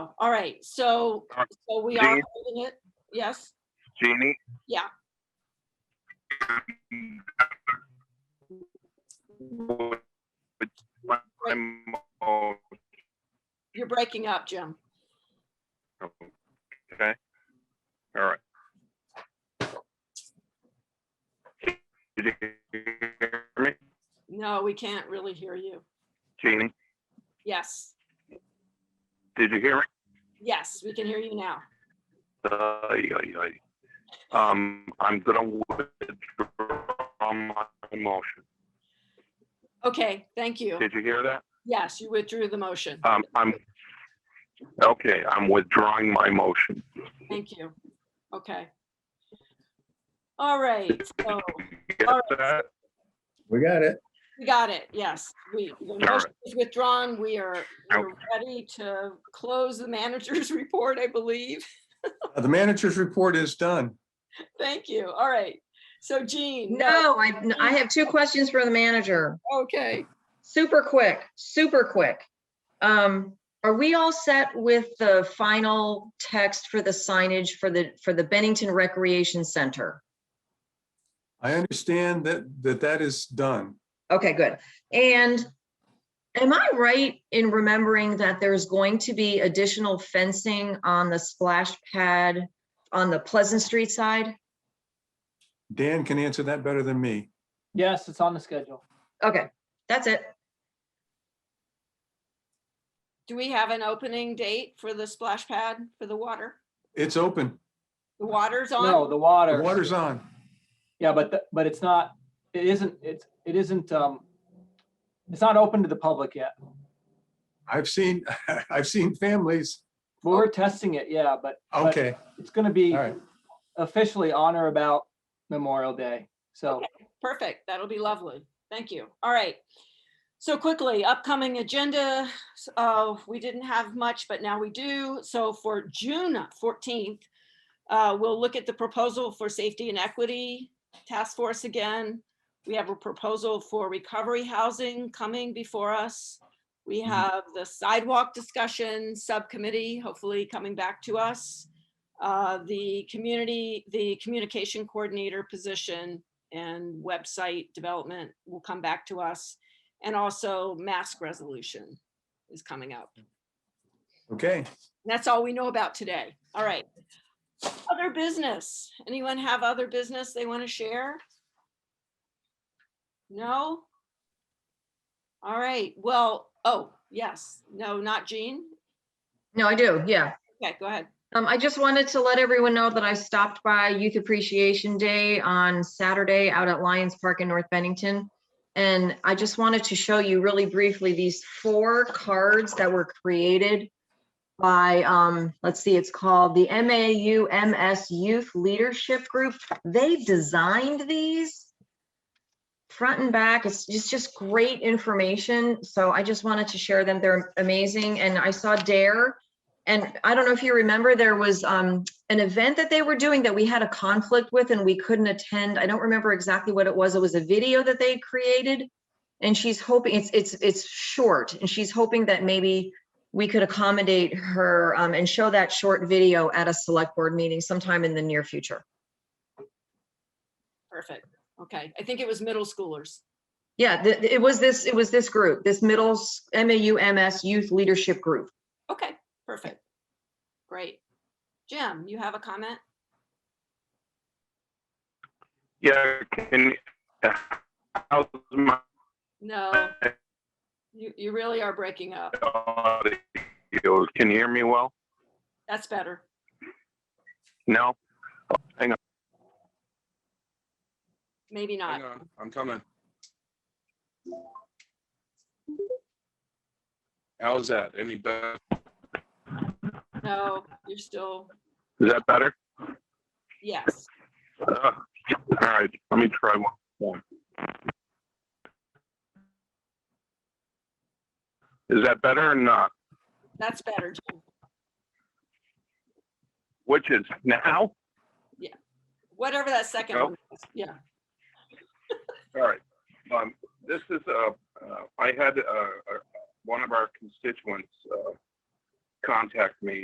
All right, so, Uh, so we are Dean? holding it, yes? Jeannie? Yeah. Would- would my mo- You're breaking up, Jim. Okay, all right. Did you hear me, No, we can't really hear you. Jeannie? Yes, Did you hear me? yes, we can hear you now. Ay, ay, ay. Um, I'm gonna withdraw my motion. Okay, thank you. Did you hear that? Yes, you withdrew the motion. Um, I'm, okay, I'm withdrawing my motion. Thank you. Okay. All right, so Get All that? We got it. we got it, yes. We, the motion right. is withdrawn. We are, we're ready to close the manager's report, I believe. The manager's report is done. Thank you. All right. So Jean, no, No, I, I have two questions for the manager. okay. Super quick, super quick. Um, are we all set with the final text for the signage for the, for the Bennington Recreation Center? I understand that, that that is done. Okay, good. And am I right in remembering that there's going to be additional fencing on the splash pad on the Pleasant Street side? Dan can answer that better than me. Yes, it's on the schedule. Okay, that's it. Do we have an opening date for the splash pad for the water? It's open. The water's Uh, on? No, the The water. water's on. Yeah, but, the- but it's not, it isn't, it's, it isn't, um, it's not open to the public yet. I've seen, I've seen families. But We're testing it, yeah, but but Okay, it's gonna be all right. officially on or about Memorial Day. So, Perfect. That'll be lovely. Thank you. All right. So quickly, upcoming agenda. s- Uh, we didn't have much, but now we do. So for June fourteenth, uh, we'll look at the proposal for safety and equity task force again. We have a proposal for recovery housing coming before us. We Mhm. have the sidewalk discussion subcommittee, hopefully coming back to us. Uh, the community, the communication coordinator position and website development will come back to us. And also mask resolution is coming up. okay. That's all we know about today. All right. Other business. Anyone have other business they want to share? No? All right. Well, oh, yes. No, not Jean. No, I do, yeah. Okay, go ahead. Um, I just wanted to let everyone know that I stopped by Youth Appreciation Day on Saturday out at Lions Park in North Bennington. And I just wanted to show you really briefly these four cards that were created by, um, let's see, it's called the MAU MS Youth Leadership Group. They designed these front and back. It's just, just great information. So I just wanted to share them. They're amazing. And I saw Dare and I don't know if you remember, there was um, an event that they were doing that we had a conflict with and we couldn't attend. I don't remember exactly what it was. It was a video that they created. And she's hoping, it's, it's, it's short, and she's hoping that maybe we could accommodate her um, and show that short video at a select board meeting sometime in the near future. Perfect. Okay. I think it was middle schoolers. Yeah, th- it was this, it was this group, this middle s- MAU MS Youth Leadership Group. Okay, perfect. Great. Jim, you have a comment? Yeah, can, how's my No. You, you really are breaking up. audio? Can you hear me well? That's better. No? Maybe not. Hang on, I'm coming. How's that? Any better? No, you're still, Is that better? yes. Uh, All right, let me try one more. Is that better or not? That's better, Jim. Which is now? Whatever that second No. one was. Yeah, All right. Um, this is, uh, uh, I had, uh, uh, one of our constituents, uh, contact me